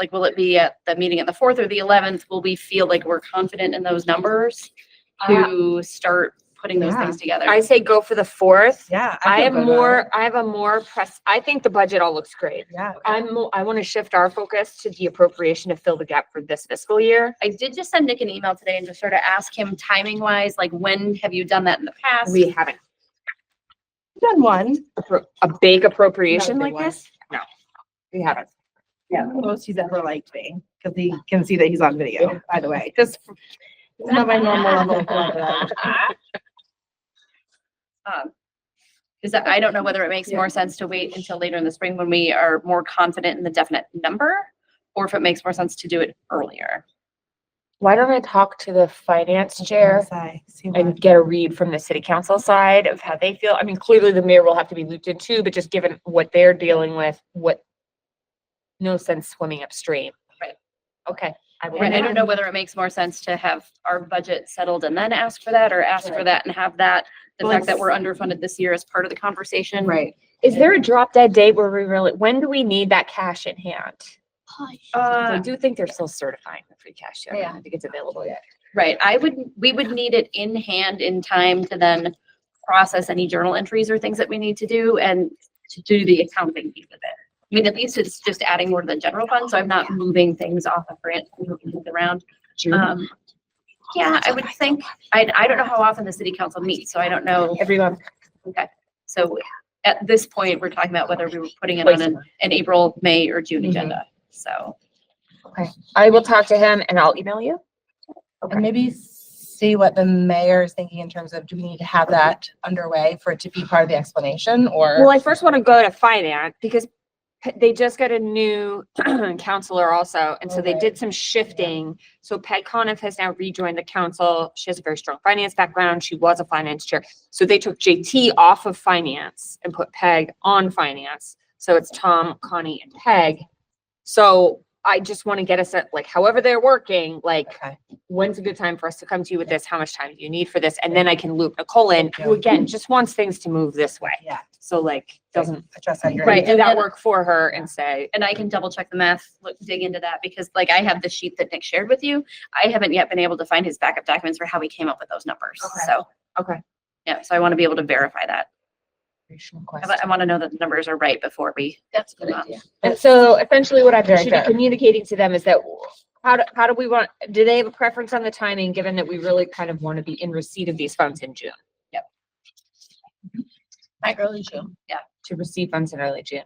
Like, will it be at the meeting at the fourth or the eleventh? Will we feel like we're confident in those numbers to start putting those Yeah. things together? I say go for the fourth. Yeah. I feel have good about it. more, I have a more press, I think the budget all looks great. Yeah. I'm, mo- I want to shift our focus to the appropriation to fill the gap for this fiscal year. I did just send Nick an email today and just sort of ask him timing wise, like, when have you done that in the past? We haven't, Done one. appro- a big appropriation Not a big like one. this? No, we haven't. Most he's ever liked me because he can see that he's on video, by the way, just. It's not my normal level of politeness. Because Um, I don't know whether it makes more sense to wait until later in the spring when we are more confident in the definite number, or if it makes more sense to do it earlier. Why don't I talk to the finance Yes, chair I see and one. get a read from the city council side of how they feel? I mean, clearly the mayor will have to be looped in too, but just given what they're dealing with, what, no sense swimming upstream. Right. Okay. I will. And I don't know whether it makes more sense to have our budget settled and then ask for that, or ask for Right. that and have that, the Well, fact that it's- we're underfunded this year as part of the conversation. Right. Is there a drop dead date where we really, when do we need that cash in hand? 'Cause I Uh, do think they're still certifying the free cash. yet. I Yeah. don't think it's available yet. right, I would, we would need it in hand in time to then process any journal entries or things that we need to do and to do the accounting piece of it. I mean, at least it's just adding more to the general fund, so I'm not moving things off of grant, moving things around. Um, yeah, I would think, I, I don't know how often the city council meets, so I don't know. Everyone. So at this point, we're talking about whether we were putting it on an, an April, May or June Mhm. agenda. So I will talk to him and I'll email you. And maybe see what the mayor is thinking in terms of, do we need to have that underway for it to be part of the explanation Well, or? I first want to go to finance because Pe- they just got a new counselor also, and so they Alright. did some shifting. So Peg Coniff has now rejoined the council. She has a very strong finance background. She was a finance chair. So they took JT off of finance and put Peg on finance. So it's Tom, Connie, and Peg. So I just want to get us at, like, however they're working, like, Okay. when's a good time for us to come to you with this? How much time do you need for this? And then I can loop Nicole in, Thank who you. again, just wants things to move this way. Yeah. So like, doesn't Address that. you're- Right, do and that then- work for her and say, and I can double check the math, look, dig into that because like I have the sheet that Nick shared with you. I haven't yet been able to find his backup documents for how he came up with those numbers. Okay. So, okay. yeah, so I want to be able to verify that. I wa- Request. I want to know that the numbers are right before we. That's a good idea. "Oh, And so essentially what I Very should be good. communicating to them is that how do, how do we want, do they have a preference on the timing, given that we really kind of want to be in receipt of these funds in June? By early June. To receive funds in early June?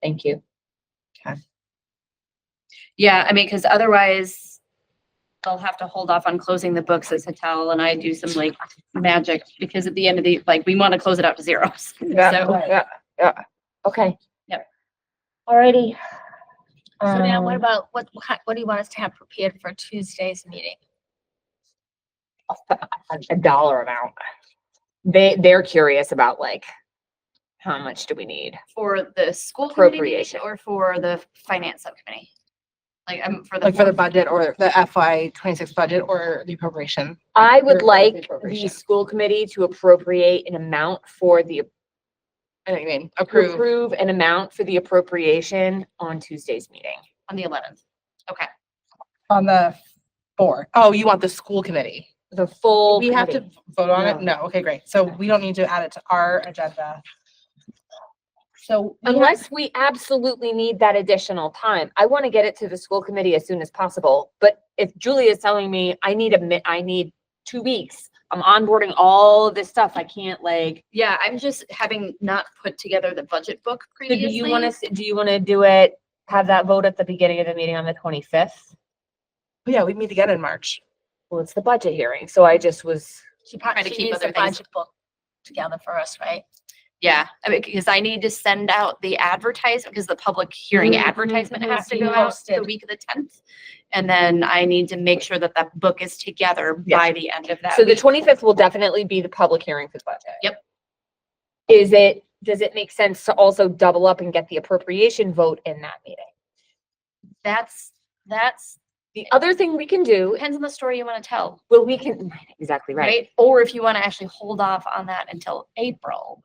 Thank you. Yeah, I mean, because otherwise they'll have to hold off on closing the books as Hatel and I do some like magic because at the end of the, like, we want to close it out to zeros. So yeah, yeah. Okay. Yep. Alrighty. So now what Um, about, what, what- what do you want us to have prepared for Tuesday's meeting? a dollar amount. They, they're curious about like, how much do we need? for the school committee meeting Appropriation. or for the finance subcommittee? Like, I'm for the. Like for the fourth- budget or the FY twenty-six budget or the appropriation. I Your would vote is like the appropriation. school committee to appropriate an amount for the, I know what you mean. to approve an amount for the appropriation on Tuesday's meeting. On the eleventh. Okay. On the four. Oh, you want the school committee? The full We have to committee. vote on it? No. No, okay, great. So we don't need to add it to our agenda. So. we have- Unless we absolutely need that additional time. I want to get it to the school committee as soon as possible. But if Julie is telling me I need a mi- I need two weeks, I'm onboarding all of this stuff. I can't like, Yeah, I'm just having not put together the budget book so do previously. you want to, do you want to do it? Have that vote at the beginning of the meeting on the twenty-fifth? Oh, Yeah, we meet again in March. Well, it's the budget hearing, so I just was. She Try to probably keep needs the other things- budget book together for us, right? Yeah, I mean, because I need to send out the advertisement, because the public hearing Mhm, advertisement mhm, has to mhm, go out the posted. week of the tenth. And then I need to make sure that that book is together Yes. by the end of that So the week. twenty-fifth will definitely be the public hearing for the budget. Yep. Is it, does it make sense to also double up and get the appropriation vote in that meeting? That's, that's, The other thing we can do, depends on the story you want to tell, well, we can, right, exactly right. right? Or if you want to actually hold off on that until April.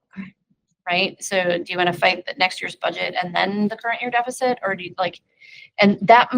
right? So do you want to fight the next year's budget and then the current year deficit, or do you like? And that